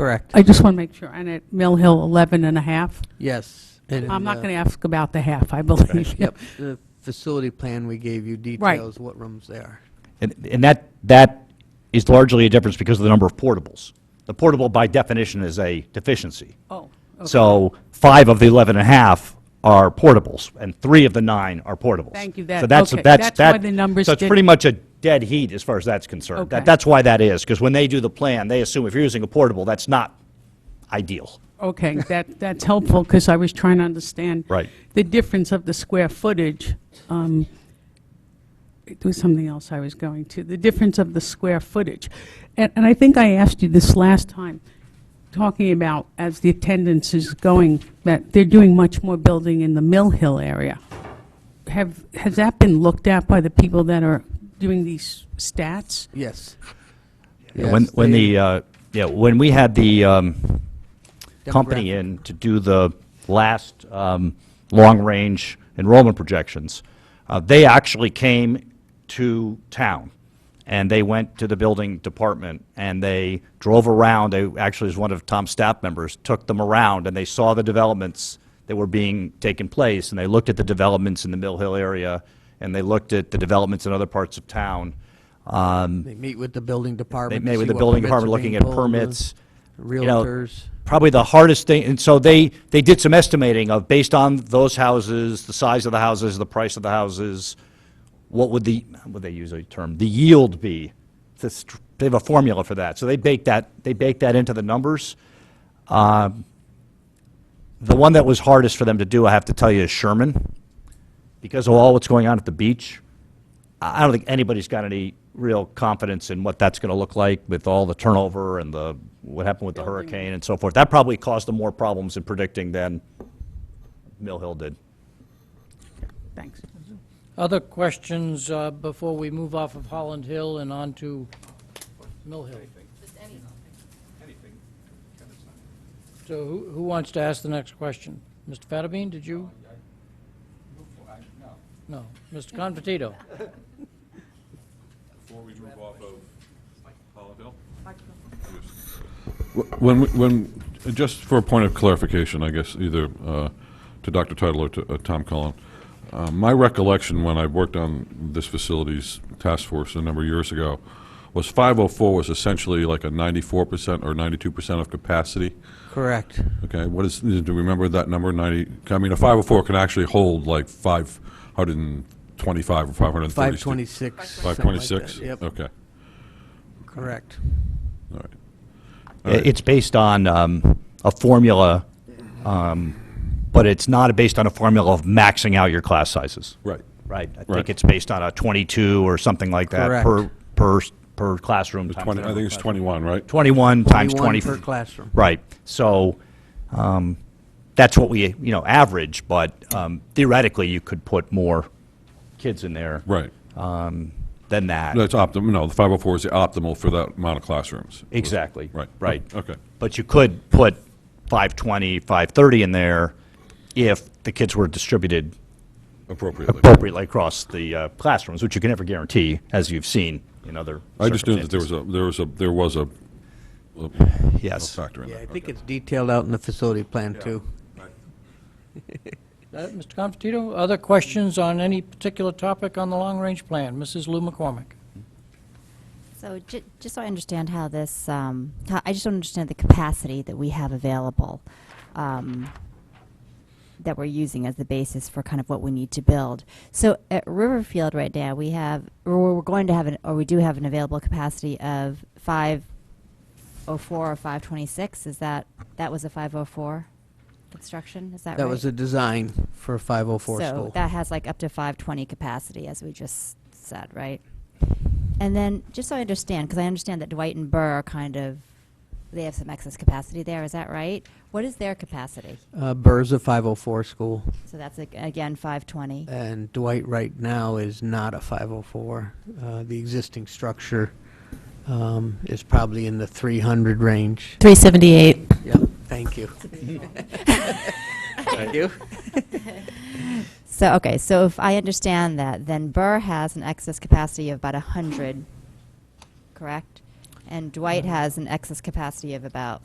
Correct. I just want to make sure, and at Mill Hill, 11 and a half? Yes. and, I'm not uh, going to ask about the half, I believe. Yep, the facility plan we gave you details what rooms they are. And, and that, that is largely a difference because of the number of portables. The portable by definition is a deficiency. Oh, okay. So five of the 11 and a half are portables, and three of the nine are portables. Thank you, that- So that's, okay, that's, that's why that- the numbers So it's did- pretty much a dead heat as far as that's concerned. That- Okay. That's why that is, because when they do the plan, they assume if you're using a portable, that's not ideal. Okay, that, that's helpful, because I was trying to understand. Right. The difference of the square footage. um, It was something else I was going to, the difference of the square footage. And, and I think I asked you this last time, talking about as the attendance is going, that they're doing much more building in the Mill Hill area. Have, has that been looked at by the people that are doing these stats? Yes. Yeah, When, Yes, when they- the, uh, yeah, when we had the um, company Demographic. in to do the last um, long-range enrollment projections, uh, they actually came to town, and they went to the building department, and they drove around, they, actually, as one of Tom's staff members, took them around, and they saw the developments that were being taken place, and they looked at the developments in the Mill Hill area, and they looked at the developments in other parts of town. Um, They meet with the building they department. to met with see the what building permits are department looking being at pulled, uh, permits. you know, Realtors. Probably the hardest thing, and so they, they did some estimating of, based on those houses, the size of the houses, the price of the houses, what would the, would they use a term, the yield be? This- They have a formula for that, so they baked that, they baked that into the numbers. Um, The one that was hardest for them to do, I have to tell you, is Sherman, because of all what's going on at the beach. I I don't think anybody's got any real confidence in what that's going to look like with all the turnover and the, what happened with the hurricane and so forth. That probably caused them more problems in predicting than Mill Hill did. Thanks. Other questions uh, before we move off of Holland Hill and on to Mill Hill? So who who wants to ask the next question? Mr. Fattabine, did you? No. Mr. Confortito? Before we move off of Holland Hill? When, we- when, just for a point of clarification, I guess, either uh, to Dr. Title or to uh, Tom Cullen, uh, my recollection when I worked on this facilities task force a number of years ago was 504 was essentially like a 94% or 92% of capacity. Correct. Okay, what is, do you remember that number, 90? I mean, a 504 can actually hold like 525 or 530. 526. something like that. 526? Yep, Okay, correct. all right. All right. It's based on um, a formula, um, but it's not based on a formula of maxing out your class sizes. Right. Right, I think Right. it's based on a 22 or something like that per, Correct. per, per classroom. times Twenty, I number think of it's classrooms. 21, right? 21 times 21 20. per classroom. Right. So um, that's what we, you know, average, but um, theoretically, you could put more kids in there Right. than that. That's optimal, no, the 504 is the optimal for that amount of classrooms. Exactly. Right. Oh, Right. Okay. But you could put 520, 530 in there if the kids were distributed Appropriately. appropriately across the uh, classrooms, which you can never guarantee, as you've seen in other I just knew that there was circumstances. a, there was a, there was a a- a Yes. factor in that. Yeah, I think Okay. it's detailed out in the facility plan, too. Uh, Mr. Confortito, other questions on any particular topic on the long-range plan? Mrs. Lou McCormick? So ju- just so I understand how this, um, how- I just don't understand the capacity that we have available, um, that we're using as the basis for kind of what we need to build. So at Riverfield right now, we have, or we're going to have an, or we do have an available capacity of five oh four or five twenty-six, is that, that was a five oh four construction, is that right? That was a design for a 504 So school. that has like up to 520 capacity, as we just said, right? And then, just so I understand, because I understand that Dwight and Burr are kind of, they have some excess capacity there, is that right? What is their capacity? Uh, Burr's a 504 school, So that's, like, again, 520. and Dwight right now is not a 504. Uh, The existing structure um, is probably in the 300 range. 378. Yep, thank you. Thank you. So, okay, so if I understand that, then Burr has an excess capacity of about 100, correct? And Dwight has an excess capacity of about